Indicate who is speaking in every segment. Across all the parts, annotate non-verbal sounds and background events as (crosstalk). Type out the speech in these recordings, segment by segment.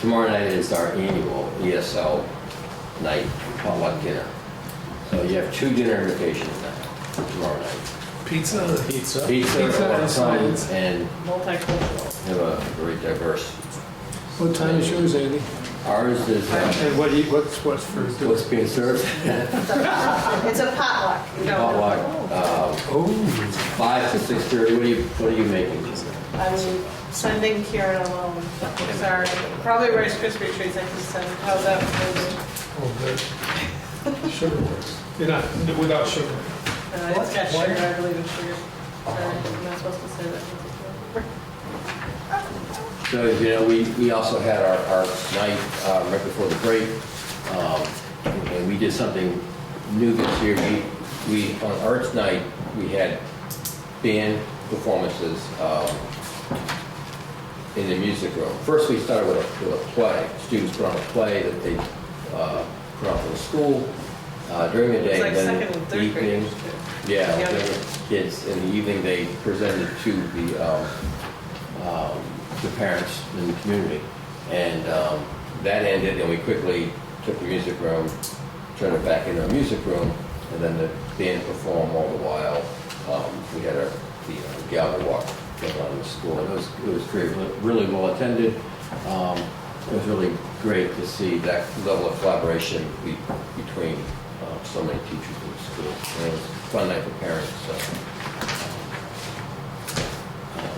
Speaker 1: Tomorrow night is our annual ESL night, potluck dinner. So you have two dinner invitations now, tomorrow night.
Speaker 2: Pizza.
Speaker 3: Pizza.
Speaker 1: Pizza
Speaker 2: Pizza
Speaker 1: at
Speaker 2: and
Speaker 1: one time
Speaker 2: sides.
Speaker 1: and
Speaker 4: Multicultural.
Speaker 1: have a very diverse.
Speaker 3: What time is yours, Andy?
Speaker 1: Ours is, uh,
Speaker 3: And what do you, what's, what's for?
Speaker 1: what's being served?
Speaker 4: It's a potluck. you don't-
Speaker 1: Potluck, uh,
Speaker 3: Oh,
Speaker 1: five to six thirty, what are you, what are you making?
Speaker 4: I'm sending Kieran alone, I'm sorry. Probably Rice Krispie treats I can send, how's that? for
Speaker 3: oh, good. Sugar works. You're not, without sugar.
Speaker 4: you? Uh, It's got
Speaker 3: What?
Speaker 4: sugar, I believe it's sugar. Sorry, I'm not supposed to say that.
Speaker 1: So, you know, we, we also had our, our night uh, right before the break, um, and we did something new this year. We, we, on Arts Night, we had band performances um, in the music room. First, we started with a, with a play. Students put on a play that they uh, put on for the school uh, during the day.
Speaker 4: It's like
Speaker 1: then
Speaker 4: second and third
Speaker 1: evening-
Speaker 4: grade.
Speaker 1: Yeah,
Speaker 4: Yeah.
Speaker 1: they were kids, in the evening, they presented to the, um, um, the parents in the community. And um, that ended, and we quickly took the music room, turned it back into a music room, and then the band performed all the while. Um, We had a, the uh, gallery walk going on in the school, and it was, it was great, really well attended. Um, It was really great to see that level of collaboration be- between uh, so many teachers in the school. And it was a fun night for parents, so. um,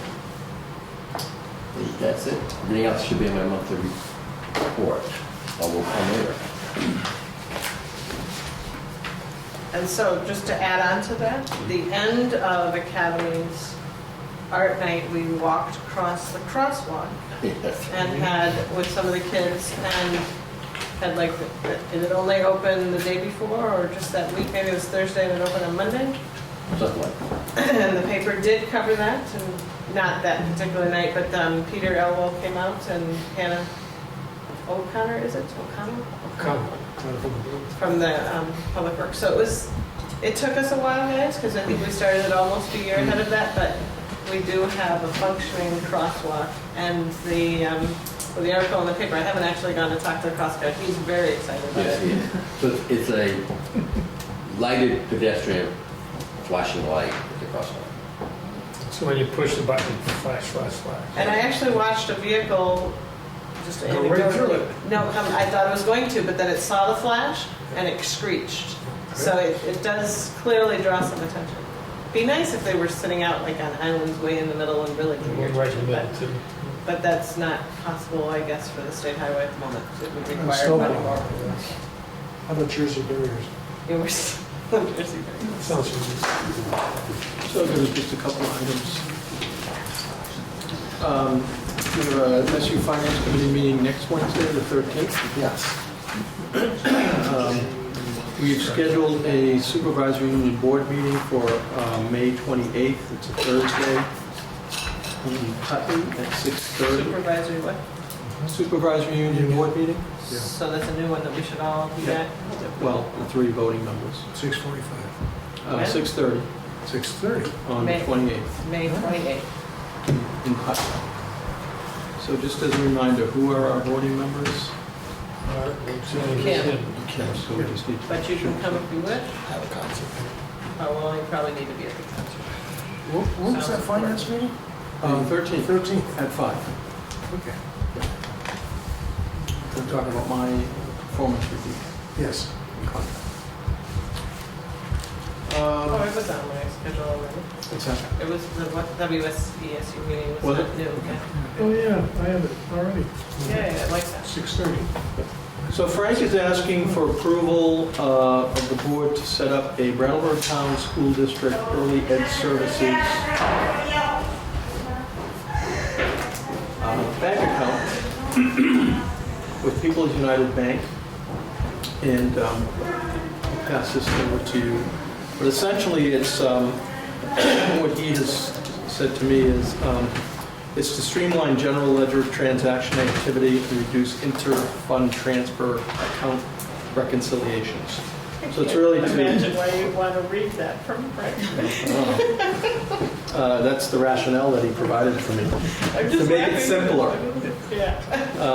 Speaker 1: that's it. Everything else should be in my monthly report. I will come later. (laughs)
Speaker 4: And so, just to add on to that, the end of Academy's art night, we walked across the crosswalk
Speaker 1: Yes.
Speaker 4: and had, with some of the kids, and had like, the- did it only open the day before, or just that week, maybe it was Thursday, and it opened on Monday? (clears throat)
Speaker 1: Something like that.
Speaker 4: And the paper did cover that, and not that particular night, but um, Peter Elwell came out and Hannah O'Connor, is it O'Connor?
Speaker 3: Come.
Speaker 4: From the um, Public Works. So it was, it took us a while, guys, because I think we started it almost a year ahead of that, but we do have a functioning crosswalk. And the, um, well, the article in the paper, I haven't actually gone to talk to the crosswalk. He's very excited about
Speaker 1: Yes,
Speaker 4: it.
Speaker 1: yes. So it's- it's a lighted pedestrian flashing light at the crosswalk.
Speaker 3: So when you push the button, flash, flash, flash.
Speaker 4: And I actually watched a vehicle just
Speaker 3: Go right
Speaker 4: anecdotally-
Speaker 3: through it.
Speaker 4: No, come, I thought it was going to, but then it saw the flash and it screeched. So it, it does clearly draw some attention. Be nice if they were sitting out like on islands way in the middle and really
Speaker 3: And
Speaker 4: near
Speaker 3: we're right
Speaker 4: to
Speaker 3: in
Speaker 4: it,
Speaker 3: the middle
Speaker 4: but,
Speaker 3: too.
Speaker 4: but that's not possible, I guess, for the state highway at the moment. It would
Speaker 5: And
Speaker 4: require
Speaker 5: snowball.
Speaker 4: money more.
Speaker 5: How about Jersey barriers?
Speaker 4: It was-
Speaker 3: Sounds familiar.
Speaker 6: So there was just a couple of items. Um, We have a MSU Finance Committee meeting next Wednesday, the 13th.
Speaker 5: Yes.
Speaker 6: Um, We've scheduled a supervisory union board meeting for uh, May 28th, it's a Thursday, in Putney at 6:30.
Speaker 4: Supervisory what?
Speaker 6: Supervisory union board meeting?
Speaker 3: Yeah.
Speaker 4: So that's a new one that we should all be at.
Speaker 6: Yeah. Well, the three voting members.
Speaker 5: Six forty-five.
Speaker 6: Uh, 6:30
Speaker 5: Six thirty.
Speaker 6: on the
Speaker 4: May.
Speaker 6: 28th.
Speaker 4: May 28th.
Speaker 6: in Putnam. So just as a reminder, who are our voting members?
Speaker 3: All right, we'll see you
Speaker 4: Kim.
Speaker 3: again.
Speaker 6: So we just need to-
Speaker 4: But you can come if you wish.
Speaker 5: Have a concert.
Speaker 4: Oh, well, you probably need to be at the concert.
Speaker 5: When's that finance meeting?
Speaker 6: Um, 13th
Speaker 5: Thirteenth.
Speaker 6: at 5.
Speaker 5: Okay.
Speaker 6: I'm talking about my performance review.
Speaker 5: Yes.
Speaker 6: and contract.
Speaker 4: Oh,
Speaker 6: Um,
Speaker 4: it was on my schedule already.
Speaker 6: what's that?
Speaker 4: It was the what- WSESU meeting was
Speaker 6: Was
Speaker 4: not
Speaker 6: it?
Speaker 4: new. Yeah,
Speaker 5: Oh, yeah, I have it already.
Speaker 4: Yeah, yeah, I like that.
Speaker 5: Six thirty.
Speaker 6: So Frank is asking for approval uh, of the board to set up a Brattleboro Town School District Early Ed Services uh, bank account (clears throat) with People's United Bank. And um, I'll pass this over to you. But essentially, it's, um, (clears throat) what he has said to me is, um, it's to streamline general ledger transaction activity and reduce inter-fund transfer account reconciliations. So it's really
Speaker 4: Imagine
Speaker 6: to,
Speaker 4: why you'd want to read that from Frank.
Speaker 6: uh, that's the rationale that he provided for me.
Speaker 4: I'm
Speaker 6: To
Speaker 4: just
Speaker 6: make it
Speaker 4: laughing.
Speaker 6: simpler.
Speaker 4: Yeah.